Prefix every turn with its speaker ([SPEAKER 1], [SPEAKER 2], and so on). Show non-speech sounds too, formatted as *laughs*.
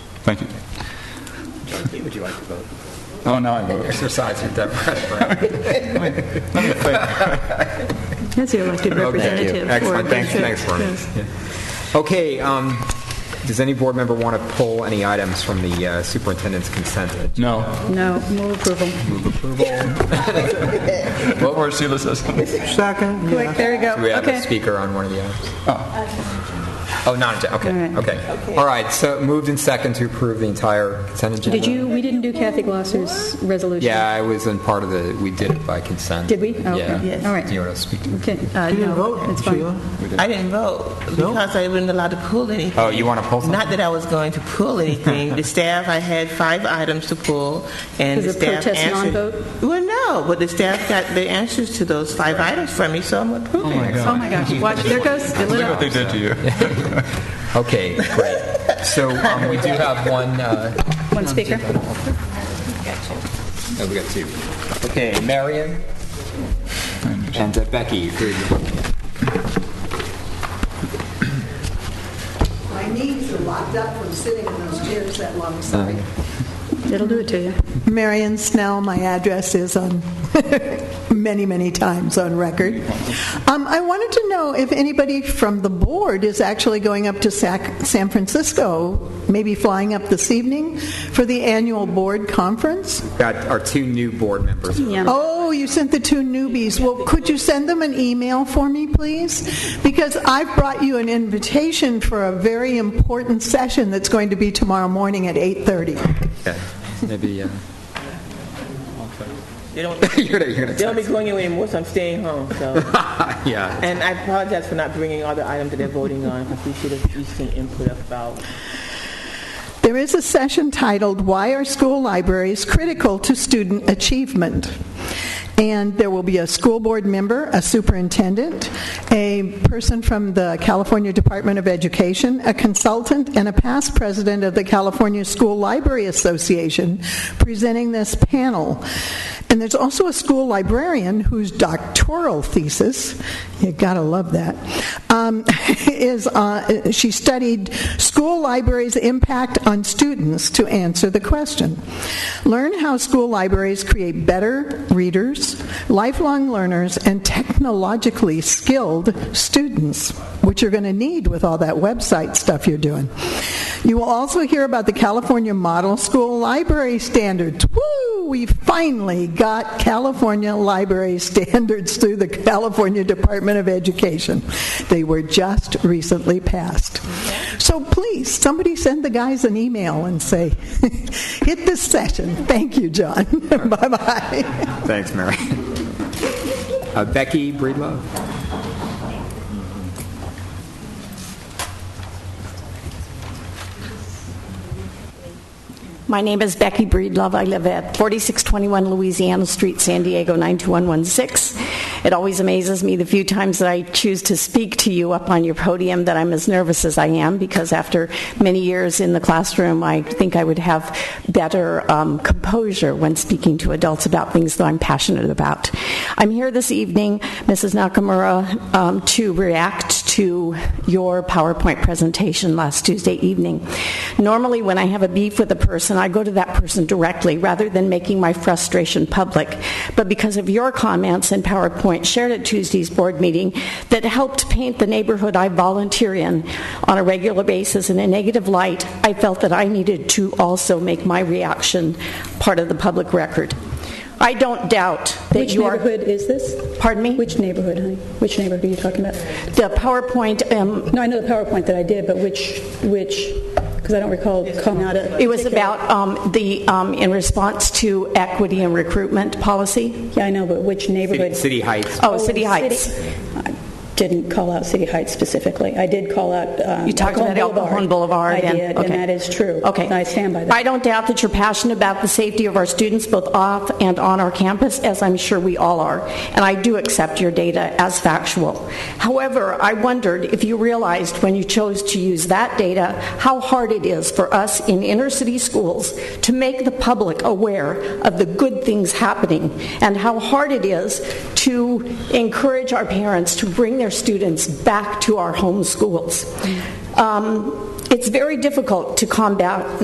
[SPEAKER 1] Thank you.
[SPEAKER 2] Would you like to vote?
[SPEAKER 1] Oh, now I vote.
[SPEAKER 2] Exercise your democratic right.
[SPEAKER 3] As your elected
[SPEAKER 2] Okay.
[SPEAKER 3] representative. or
[SPEAKER 2] Oh, Excellent. Thanks-
[SPEAKER 3] official.
[SPEAKER 2] thanks, Vernon.
[SPEAKER 3] Yes.
[SPEAKER 2] Okay, um, does any board member want to pull any items from the uh, superintendent's consent? agenda?
[SPEAKER 1] No.
[SPEAKER 3] No, move approval.
[SPEAKER 1] What were Sheila says?
[SPEAKER 4] Second,
[SPEAKER 3] Quick, there you go.
[SPEAKER 2] Do we have
[SPEAKER 3] Okay.
[SPEAKER 2] a speaker on one of the items? Oh, not, okay,
[SPEAKER 3] All right.
[SPEAKER 2] okay. All right, so moved in second to approve the entire consent agenda?
[SPEAKER 3] Did you, we didn't do Kathy Glosser's resolution?
[SPEAKER 2] Yeah, I was in part of the, we did it by consent.
[SPEAKER 3] Did we? Oh, okay.
[SPEAKER 2] Yeah.
[SPEAKER 3] Yes. All right.
[SPEAKER 2] Do you want to speak to
[SPEAKER 3] Okay, uh,
[SPEAKER 4] you didn't
[SPEAKER 3] no,
[SPEAKER 4] vote,
[SPEAKER 3] it's fine.
[SPEAKER 4] Sheila.
[SPEAKER 5] I didn't vote because I wasn't allowed to pull anything.
[SPEAKER 2] Oh, you wanna pull something?
[SPEAKER 5] Not that I was going to pull anything. the staff, I had five items to pull, and
[SPEAKER 3] Is
[SPEAKER 5] the
[SPEAKER 3] it
[SPEAKER 5] staff
[SPEAKER 3] protest
[SPEAKER 5] answered.
[SPEAKER 3] non-vote?
[SPEAKER 5] Well, no, but the staff got the answers to those five items from me, so I'm approving. it.
[SPEAKER 3] Oh, my gosh, watch, there goes, it
[SPEAKER 1] Look
[SPEAKER 3] lit
[SPEAKER 1] what
[SPEAKER 3] up.
[SPEAKER 1] they did to you.
[SPEAKER 2] Okay, great. So um, we do have one, uh,
[SPEAKER 3] One speaker.
[SPEAKER 2] no, oh, we got two. Okay, Marion and uh, Becky.
[SPEAKER 6] My knees are locked up from sitting in those chairs that long, sorry.
[SPEAKER 3] It'll do it to you.
[SPEAKER 7] Marion Snell, my address is on *laughs* many, many times on record. Um, I wanted to know if anybody from the board is actually going up to Sac- San Francisco, maybe flying up this evening for the annual board conference?
[SPEAKER 2] Got our two new board members.
[SPEAKER 3] Yeah.
[SPEAKER 7] Oh, you sent the two newbies. Well, could you send them an email for me, please? Because I've brought you an invitation for a very important session that's going to be tomorrow morning at 8:30.
[SPEAKER 2] Okay, Maybe, uh,
[SPEAKER 5] They don't,
[SPEAKER 2] *laughs* you're gonna- you're gonna
[SPEAKER 5] they don't be
[SPEAKER 2] text.
[SPEAKER 5] going anywhere anymore, so I'm staying home. *laughs* So.
[SPEAKER 2] Yeah.
[SPEAKER 5] and I apologize for not bringing all the items that they're voting on because we should have used some input about
[SPEAKER 7] There is a session titled Why Are School Libraries Critical to Student Achievement? And there will be a school board member, a superintendent, a person from the California Department of Education, a consultant, and a past president of the California School Library Association presenting this panel. And there's also a school librarian whose doctoral thesis, you gotta love that, um, *laughs* is uh, she studied school libraries' impact on students to answer the question. Learn how school libraries create better readers, lifelong learners, and technologically skilled students, which you're going to need with all that website stuff you're doing. You will also hear about the California Model School Library Standards. Woo! We finally got California library standards through the California Department of Education. They were just recently passed. So please, somebody send the guys an email and say, *laughs* hit this session. Thank you, John. *laughs* bye bye.
[SPEAKER 2] Thanks, Mary. Uh, Becky Breedlove.
[SPEAKER 8] My name is Becky Breedlove. I live at 4621 Louisiana Street, San Diego, 92116. It always amazes me the few times that I choose to speak to you up on your podium that I'm as nervous as I am because after many years in the classroom, I think I would have better um, composure when speaking to adults about things that I'm passionate about. I'm here this evening, Mrs. Nakamura, um, to react to your PowerPoint presentation last Tuesday evening. Normally, when I have a beef with a person, I go to that person directly rather than making my frustration public. But because of your comments and PowerPoint shared at Tuesday's board meeting that helped paint the neighborhood I volunteer in on a regular basis in a negative light, I felt that I needed to also make my reaction part of the public record. I don't doubt that
[SPEAKER 9] Which
[SPEAKER 8] you are.
[SPEAKER 9] neighborhood is this?
[SPEAKER 8] Pardon me?
[SPEAKER 9] Which neighborhood, honey? Which neighborhood are you talking about?
[SPEAKER 8] The PowerPoint um,
[SPEAKER 9] No, I know the PowerPoint that I did, but which, which, because I don't recall coming out of...
[SPEAKER 8] It was about um, the, um, in response to equity and recruitment policy.
[SPEAKER 9] Yeah, I know, but which
[SPEAKER 2] City-
[SPEAKER 9] neighborhood?
[SPEAKER 2] City Heights.
[SPEAKER 8] Oh, City Heights.
[SPEAKER 9] I didn't call out City Heights specifically. I did call out um,
[SPEAKER 8] You talked about El Cajon Boulevard.
[SPEAKER 9] I
[SPEAKER 8] and-
[SPEAKER 9] did,
[SPEAKER 8] okay.
[SPEAKER 9] and that is true.
[SPEAKER 8] Okay.
[SPEAKER 9] And I stand by
[SPEAKER 8] I
[SPEAKER 9] that.
[SPEAKER 8] don't doubt that you're passionate about the safety of our students, both off and on our campus, as I'm sure we all are, and I do accept your data as factual. However, I wondered if you realized when you chose to use that data, how hard it is for us in inner-city schools to make the public aware of the good things happening, and how hard it is to encourage our parents to bring their students back to our home schools. Um, It's very difficult to combat